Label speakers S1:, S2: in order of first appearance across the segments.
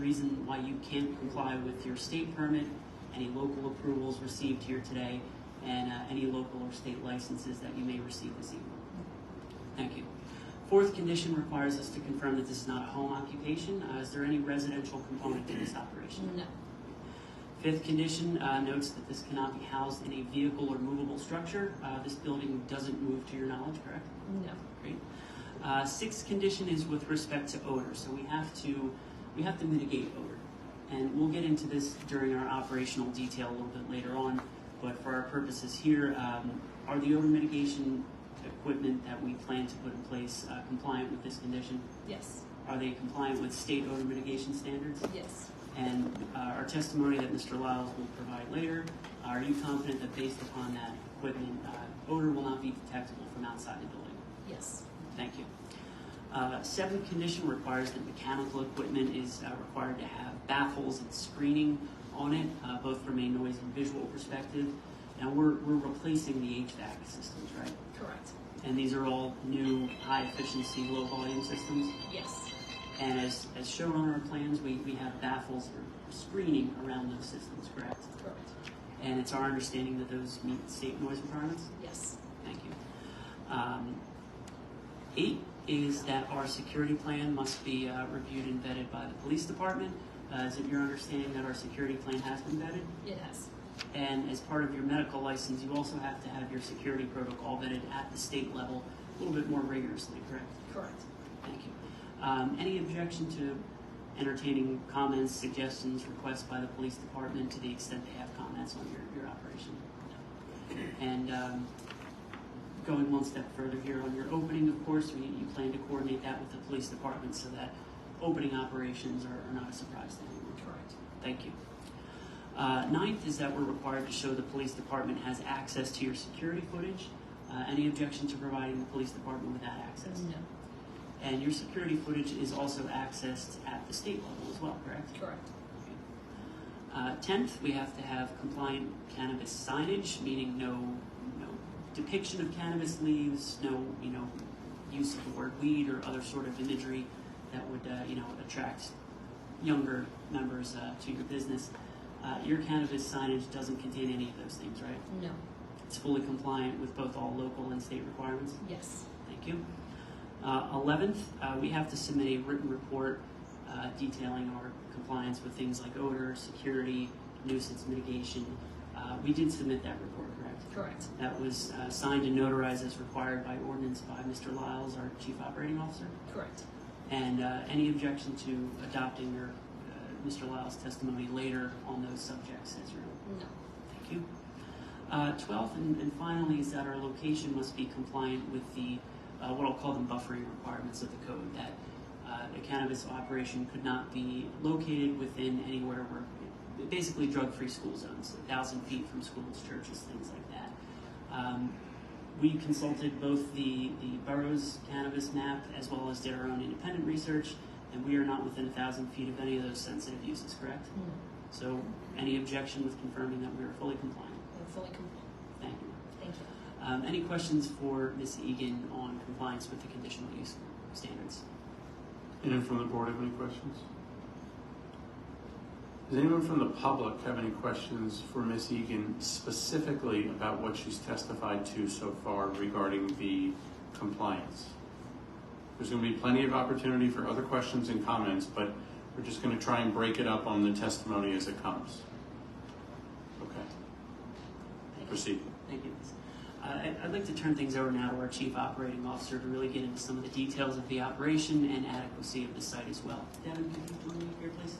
S1: reason why you can't comply with your state permit, any local approvals received here today, and uh, any local or state licenses that you may receive this evening. Thank you. Fourth condition requires us to confirm that this is not a home occupation. Uh, Is there any residential component to this operation?
S2: No.
S1: Fifth condition uh, notes that this cannot be housed in a vehicle or movable structure. Uh, This building doesn't move to your knowledge, correct?
S2: No.
S1: Great. Uh, Sixth condition is with respect to odor, so we have to, we have to mitigate odor. And we'll get into this during our operational detail a little bit later on, but for our purposes here, um, are the odor mitigation equipment that we plan to put in place uh, compliant with this condition?
S2: Yes.
S1: Are they compliant with state odor mitigation standards?
S2: Yes.
S1: And uh, our testimony that Mr. Lyles will provide later, are you confident that based upon that equipment, uh, odor will not be detectable from outside the building?
S2: Yes.
S1: Thank you. Uh, Seventh condition requires that mechanical equipment is uh, required to have baffles and screening on it, uh, both from a noise and visual perspective. Now, we're, we're replacing the HVAC systems, right?
S2: Correct.
S1: And these are all new, high-efficiency, low-volume systems.
S2: Yes.
S1: And as, as shown on our plans, we, we have baffles or screening around those systems, correct?
S2: Correct.
S1: And it's our understanding that those meet state noise requirements?
S2: Yes.
S1: Thank you. Um, Eight is that our security plan must be uh, reviewed and vetted by the police department. Uh, Is it your understanding that our security plan has been vetted?
S2: It has.
S1: And as part of your medical license, you also have to have your security protocol vetted at the state level a little bit more rigorously, correct?
S2: Correct.
S1: Thank you. Um, Any objection to entertaining comments, suggestions, requests by the police department to the extent they have comments on your, your operation? And um, going one step further here on your opening, of course, we- you plan to coordinate that with the police department so that opening operations are are not a surprise to anyone.
S2: Correct.
S1: Thank you. Uh, Ninth is that we're required to show the police department has access to your security footage. Uh, Any objection to providing the police department with that access?
S2: No.
S1: And your security footage is also accessed at the state level as well, correct?
S2: Correct.
S1: Uh, tenth, we have to have compliant cannabis signage, meaning no, no depiction of cannabis leaves, no, you know, use of the word weed or other sort of imagery that would, uh, you know, attract younger members uh, to your business. Uh, your cannabis signage doesn't contain any of those things, right?
S2: No.
S1: It's fully compliant with both all local and state requirements.
S2: Yes.
S1: Thank you. Uh, Eleventh, we have to submit a written report uh, detailing our compliance with things like odor, security, nuisance mitigation. Uh, We did submit that report, correct?
S2: Correct.
S1: That was uh, signed and notarized as required by ordinance by Mr. Lyles, our Chief Operating Officer.
S2: Correct.
S1: And uh, any objection to adopting your, uh, Mr. Lyles' testimony later on those subjects as your own?
S2: No.
S1: Thank you. Uh, Twelfth and and finally is that our location must be compliant with the, uh, what I'll call them buffering requirements of the code, that uh, the cannabis operation could not be located within anywhere where, basically drug-free school zones, a thousand feet from schools, churches, things like that. Um, We consulted both the, the borough's cannabis map as well as did our own independent research, and we are not within a thousand feet of any of those sensitive uses, correct?
S2: No.
S1: So any objection with confirming that we are fully compliant?
S2: We're fully compliant.
S1: Thank you.
S2: Thank you.
S1: Um, Any questions for Ms. Egan on compliance with the conditional use standards?
S3: Anyone from the board have any questions? Does anyone from the public have any questions for Ms. Egan specifically about what she's testified to so far regarding the compliance? There's going to be plenty of opportunity for other questions and comments, but we're just going to try and break it up on the testimony as it comes. Okay,
S1: Thank you.
S3: proceed.
S1: Thank you. Ms. Uh, I- I'd like to turn things over now to our Chief Operating Officer to really get into some of the details of the operation and adequacy of the site as well. Devin, could you come in here, please?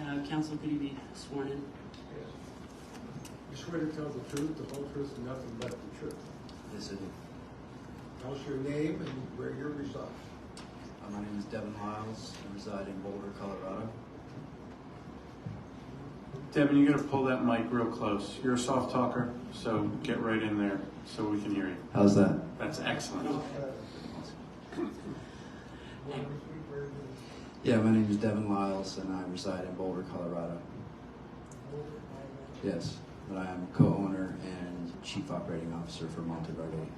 S1: Uh, Counsel, could you be sworn in?
S4: You swear to tell the truth, the whole truth, and nothing but the truth.
S5: This is,
S4: Tell us your name and where you reside.
S5: uh, my name is Devin Lyles. I reside in Boulder, Colorado.
S3: Devin, you got to pull that mic real close. You're a soft talker, so get right in there so we can hear you.
S5: How's that?
S3: That's excellent.
S5: Yeah, my name is Devin Lyles, and I reside in Boulder, Colorado. Yes, but I am co-owner and chief operating officer for Monte Verde.